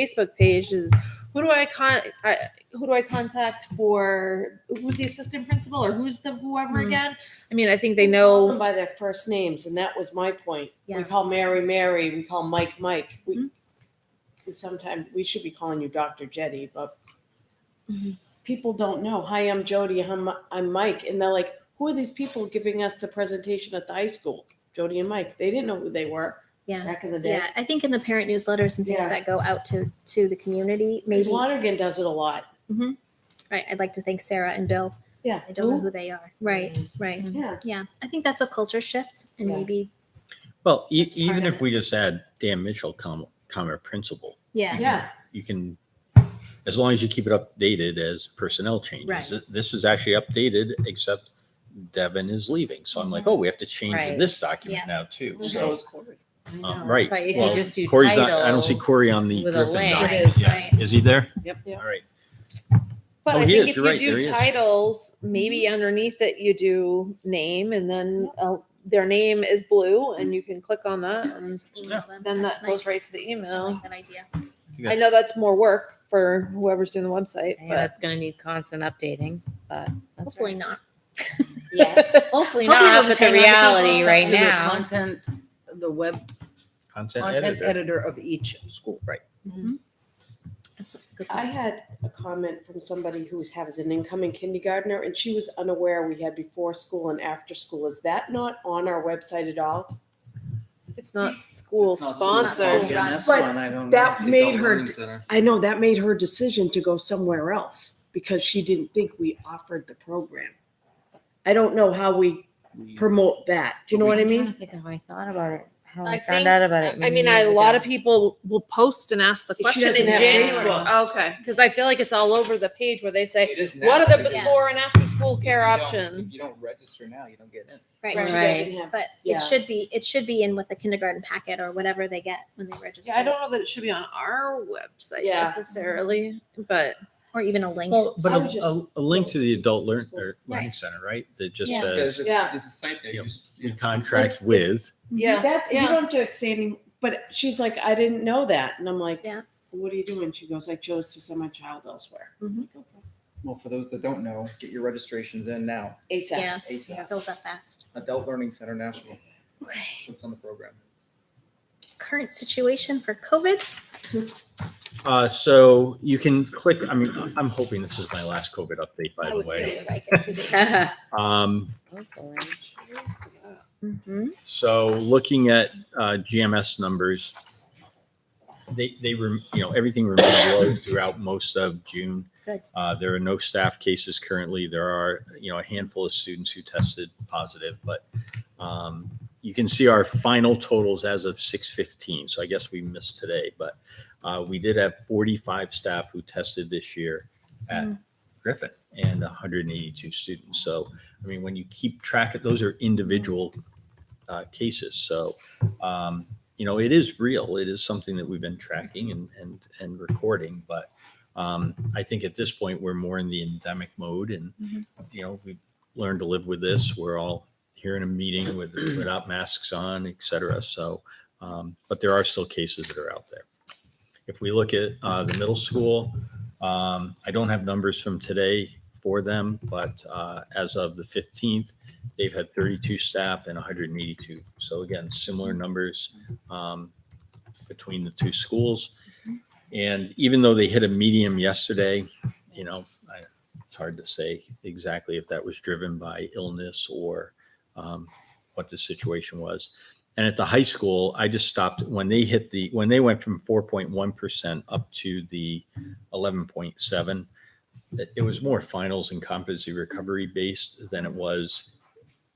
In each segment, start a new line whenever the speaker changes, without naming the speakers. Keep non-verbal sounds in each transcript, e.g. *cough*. Facebook page is who do I con I, who do I contact for who's the assistant principal or who's the whoever
Hmm.
again? I mean, I think they
Call them
know.
by their first names, and that was my point.
Yeah.
We call Mary Mary, we call Mike Mike. We,
Mhm.
we sometimes we should be calling you Dr. Jetty, but
Mhm.
people don't know. Hi, I'm Jody. I'm, I'm Mike, and they're like, "Who are these people giving us the presentation at the high school?" Jody and Mike. They didn't know who they were
Yeah.
back in the day.
Yeah, I think in the parent newsletters and things
Yeah.
that go out to to the community,
Ms.
maybe
Lonergan does it a lot.
right. I'd like to thank Sarah and Bill.
Yeah.
I don't know who they are. Right, right.
Yeah.
Yeah, I think that's a culture shift, and
Yeah.
maybe
Well, e-
That's part
even
of it.
if we just add Dan Mitchell, comma, comma principal,
yeah,
Yeah.
you can, as long as you keep it updated as personnel
Right.
changes. Th- This is actually updated, except Devin is leaving. So I'm like, oh, we have to change
Right.
this document now too. So,
Corey.
um, right.
But if
Well,
you just do
Corey's not,
titles,
I don't see Corey on the
with a
Griffin
link.
document.
Right,
Yeah. Is he there?
Yep.
Yeah.
All right.
But
Oh,
I
he
think
is.
if
You're
you
right. There
do
he is.
titles, maybe underneath it you do name, and then uh, their name is blue, and you can click on that, and
email them.
then
that's
that goes
nice.
right to the
I
email.
like that idea.
I know that's more work for whoever's doing the website,
Yeah,
but
that's going to need constant updating, but that's
Hopefully
right.
not.
Yes. *laughs* Hopefully
Hopefully
not,
we'll
but
just
the
hang on to
reality
people.
right
We'll do the
now.
Content, the web
Content
content
editor.
editor of each school. Right.
That's a good
I
one.
had a comment from somebody who has an incoming kindergartner, and she was unaware we had before school and after school. Is that not on our website at all?
it's not school
sponsored.
sponsored.
Yeah,
This
But
one, I don't.
that made her d- I know that made her decision to go somewhere else because she didn't think we offered the program. I don't know how we promote that. Do you know what I mean?
think how I thought about it, how
I
I,
think-
found out about it.
I mean, I- a lot of people will post and ask the
She
question in
doesn't have
January.
Facebook.
Okay, because I feel like it's all over the page where they say,
It is now,
what are the
because if
before and after school care
you don't- If
options?
you don't register now, you don't get in.
Right.
She
Right.
doesn't have-
But
Yeah.
it should be it should be in with the kindergarten packet or whatever they get when they register,
Yeah, I don't know that it should be on our website
Yeah.
necessarily, but
or even a link.
Well,
I
but
would
a, a,
just-
a link to the adult learn, or learning
Right.
center, right? That just
Yeah.
says
There's a,
Yeah.
there's a site there.
Yep.
You just,
we contract with.
*laughs* yeah.
That, you don't have to say any, but she's like, I didn't know that. And I'm like,
Yeah.
what are you doing? She goes, I chose to send my child elsewhere.
Mhm.
well, for those that don't know, get your registrations in now.
ASAP.
Yeah,
ASAP.
it fills up fast.
Adult Learning Center National.
Okay.
It's on the program.
Current situation for COVID.
Uh, so you can click, I mean, I'm hoping this is my last COVID update, by
I
the
would
way.
really like it to be-
Um,
mm-hmm.
so looking at, uh, GMS numbers, they, they, rem- you know, everything remained low throughout most of June.
Good.
Uh, there are no staff cases currently. There are, you know, a handful of students who tested positive, but, um, you can see our final totals as of six fifteen. So I guess we missed today, but, uh, we did have forty-five staff who tested this year at Griffin and hundred and eighty-two students. So, I mean, when you keep track of, those are individual uh, cases. So, um, you know, it is real. It is something that we've been tracking and, and, and recording. But um, I think at this point, we're more in the endemic mode and,
Mhm.
you know, we've learned to live with this. We're all here in a meeting with, without masks on, et cetera. So, um, but there are still cases that are out there. If we look at uh, the middle school, um, I don't have numbers from today for them, but uh, as of the 15th, they've had 32 staff and 182. So again, similar numbers um, between the two schools. And even though they hit a medium yesterday, you know, I, it's hard to say exactly if that was driven by illness or um, what the situation was. And at the high school, I just stopped when they hit the when they went from 4.1% up to the 11.7. It it was more finals and competency recovery based than it was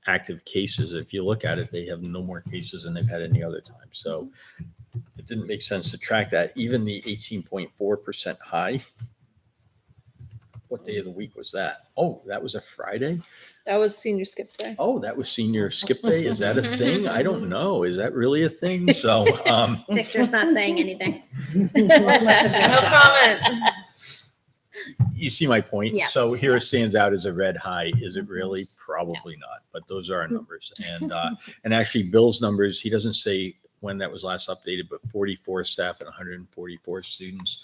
active cases. If you look at it, they have no more cases than they've had any other time. So it didn't make sense to track that. Even the eighteen point four percent high. What day of the week was that? Oh, that was a Friday.
That was senior skip day.
Oh, that was senior skip day. Is that a thing? I don't know. Is that really a thing? So, um,
Victor's not saying anything. *laughs*
No *laughs* comment.
you see my point.
Yeah.
So here it stands out as a red high. Is it really?
Mm-hmm. *laughs*
Probably not. But those are our numbers. And uh, and actually Bill's numbers, he doesn't say 1.7 when that was last updated, but 44 staff and 144 students.